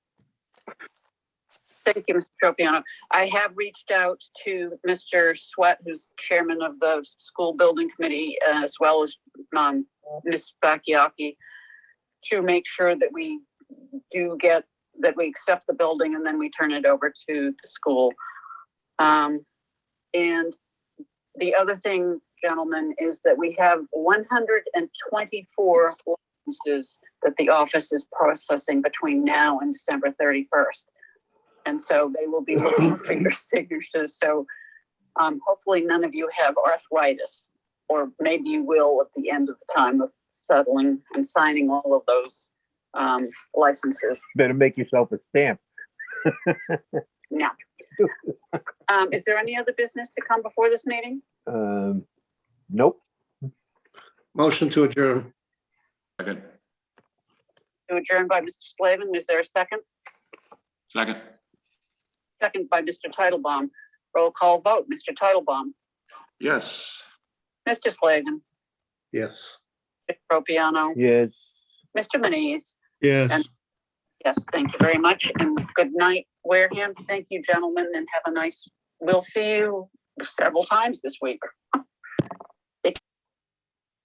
Thank you, Mr. Tropiano. I have reached out to Mr. Sweat, who's chairman of the school building committee, uh, as well as um, Ms. Bakayaki, to make sure that we do get, that we accept the building and then we turn it over to the school. Um, And the other thing, gentlemen, is that we have 124 licenses that the office is processing between now and December 31st. And so they will be looking for your signatures. So um, hopefully none of you have arthritis, or maybe you will at the end of the time of settling and signing all of those um, licenses. Better make yourself a stamp. Um, is there any other business to come before this meeting? Um, nope. Motion to adjourn. Second, To adjourn by Mr. Slavin, is there a second? second, Second by Mr. Titlebaum. Roll call vote, Mr. Titlebaum, yes. Mr. Slavin, Yes. Mr. Propiano, Yes. Mr. Manise. Yes. And- Yes, thank you very much and good night, Wareham. Thank you, gentlemen, and have a nice, we'll see you several times this week.